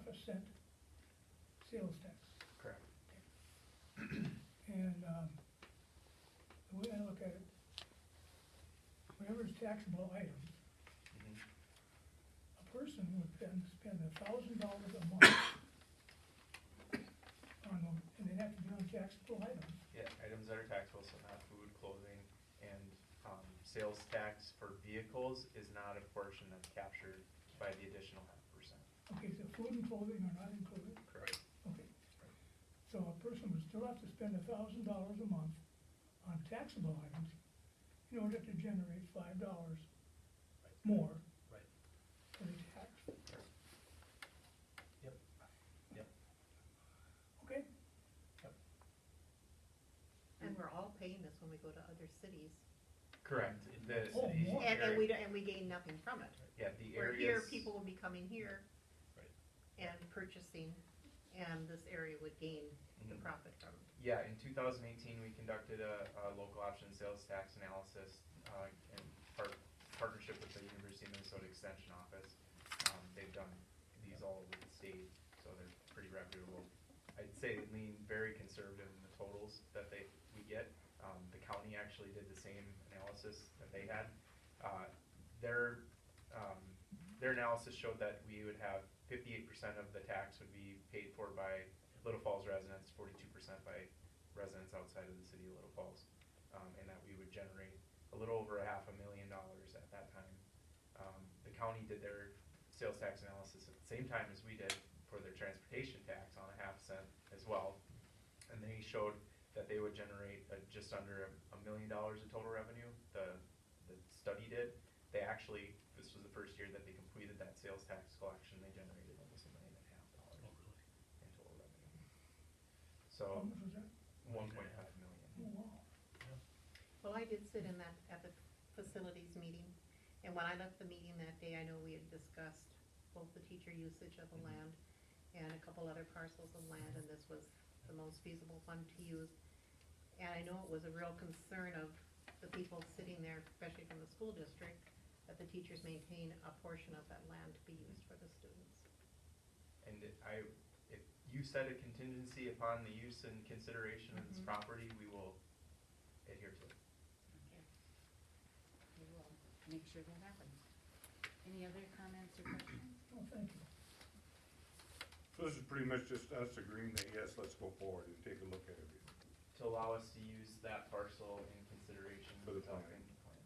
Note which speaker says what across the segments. Speaker 1: percent sales tax.
Speaker 2: Correct.
Speaker 1: And, um, the way I look at it, whatever is taxable items,
Speaker 2: Mhm.
Speaker 1: a person would spend, spend a thousand dollars a month on them, and they'd have to be on taxable items.
Speaker 2: Yeah, items that are taxable, so not food, clothing, and, um, sales tax for vehicles is not a portion that's captured by the additional half percent.
Speaker 1: Okay, so food and clothing are not included,
Speaker 2: Correct.
Speaker 1: okay. So a person would still have to spend a thousand dollars a month on taxable items in order to generate five dollars more.
Speaker 3: Right.
Speaker 1: For the tax.
Speaker 3: Yep. Yep.
Speaker 1: Okay,
Speaker 4: And we're all paying this when we go to other cities,
Speaker 2: Correct, the,
Speaker 1: Oh,
Speaker 2: the
Speaker 1: more.
Speaker 4: and, and we,
Speaker 2: area,
Speaker 4: don't- and we gain nothing from it.
Speaker 2: yeah, the
Speaker 4: Where here,
Speaker 2: areas,
Speaker 4: people will be coming here
Speaker 3: Right.
Speaker 4: and purchasing, and this area would gain the
Speaker 2: Mhm.
Speaker 4: profit from it.
Speaker 2: yeah, in two thousand eighteen, we conducted a, a local option sales tax analysis, uh, in part, partnership with the University of Minnesota Extension Office. Um, they've done these all over the state, so they're pretty reputable. I'd say they lean very conservative in the totals that they, we get. Um, the county actually did the same analysis that they had. Uh, their, um, their analysis showed that we would have fifty-eight percent of the tax would be paid for by Little Falls residents, forty-two percent by residents outside of the city of Little Falls. Um, and that we would generate a little over a half a million dollars at that time. Um, the county did their sales tax analysis at the same time as we did for their transportation tax on a half cent as well. And they showed that they would generate uh, just under a million dollars in total revenue, the, the study did. They actually, this was the first year that they completed that sales tax collection, they generated almost a million and a half dollars
Speaker 3: Oh, really?
Speaker 2: in total revenue.
Speaker 1: how
Speaker 2: So,
Speaker 1: much was that?
Speaker 2: one point five million.
Speaker 1: Oh, wow.
Speaker 4: Well, I did sit in that, at the facilities meeting, and when I left the meeting that day, I know we had discussed both the teacher usage of the
Speaker 2: Mhm.
Speaker 4: land and a couple other parcels of land, and this was the most feasible one to use. And I know it was a real concern of the people sitting there, especially from the school district, that the teachers maintain a portion of that land to be used for the students.
Speaker 2: And it- I, if you set a contingency upon the use and consideration of this
Speaker 4: Mhm.
Speaker 2: property, we will adhere to it.
Speaker 5: We will make sure that happens. Any other comments or questions?
Speaker 1: Oh, thank you.
Speaker 6: So this is pretty much just us agreeing that, yes, let's go forward and take a look at it.
Speaker 2: To allow us to use that parcel in consideration
Speaker 6: For the
Speaker 2: of
Speaker 6: plan.
Speaker 2: any plan.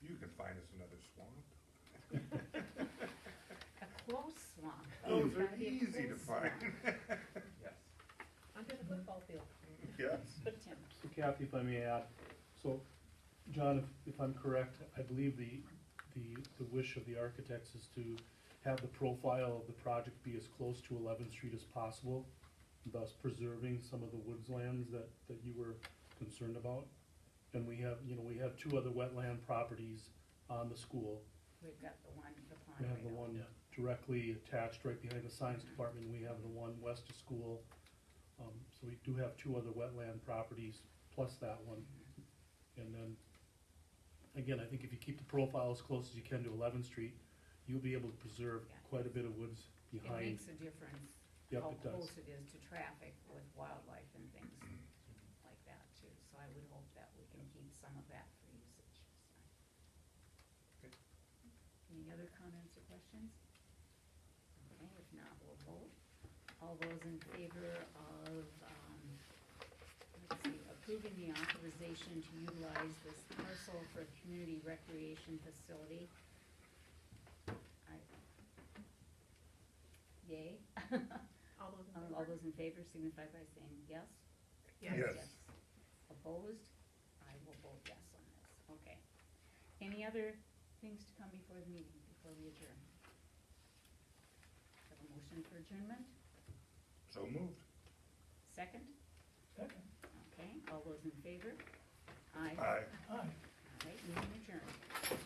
Speaker 6: You can find us another swamp.
Speaker 5: A close swamp.
Speaker 6: Those
Speaker 5: It's
Speaker 6: are
Speaker 5: gotta be a
Speaker 6: easy to
Speaker 5: close
Speaker 6: find.
Speaker 5: swamp.
Speaker 2: Yes.
Speaker 4: Under the football field.
Speaker 6: Yes.
Speaker 5: Tim,
Speaker 7: So Kathy, if I may add, so, John, if- if I'm correct, I believe the, the, the wish of the architects is to have the profile of the project be as close to Eleventh Street as possible, thus preserving some of the woodslands that, that you were concerned about. And we have, you know, we have two other wetland properties on the school.
Speaker 5: we've got the one, the pond
Speaker 7: We have
Speaker 5: right
Speaker 7: the
Speaker 5: over
Speaker 7: one directly attached right behind the science department, we have the one west of school. Um, so we do have two other wetland properties plus that one. And then, again, I think if you keep the profile as close as you can to Eleventh Street, you'll be able to preserve
Speaker 5: Yeah.
Speaker 7: quite a bit of woods
Speaker 5: It
Speaker 7: behind.
Speaker 5: makes a difference
Speaker 7: Yep,
Speaker 5: how
Speaker 7: it does.
Speaker 5: close it is to traffic with wildlife and things like that too. So I would hope that we can keep some of that for usage.
Speaker 2: Okay.
Speaker 5: Any other comments or questions? Okay, if not, we'll vote. All those in favor of, um, let's see, approving the authorization to utilize this parcel for community recreation facility? I- Yay?
Speaker 4: All those in
Speaker 5: Um,
Speaker 4: favor?
Speaker 5: All those in favor signify by saying yes.
Speaker 6: Yes.
Speaker 5: Opposed? I will vote yes on this, okay. Any other things to come before the meeting, before we adjourn? Have a motion for adjournment,
Speaker 6: So moved.
Speaker 5: second,
Speaker 1: Second,
Speaker 5: okay, all those in favor? Aye.
Speaker 6: Aye.
Speaker 1: aye.
Speaker 5: All right, meeting adjourned.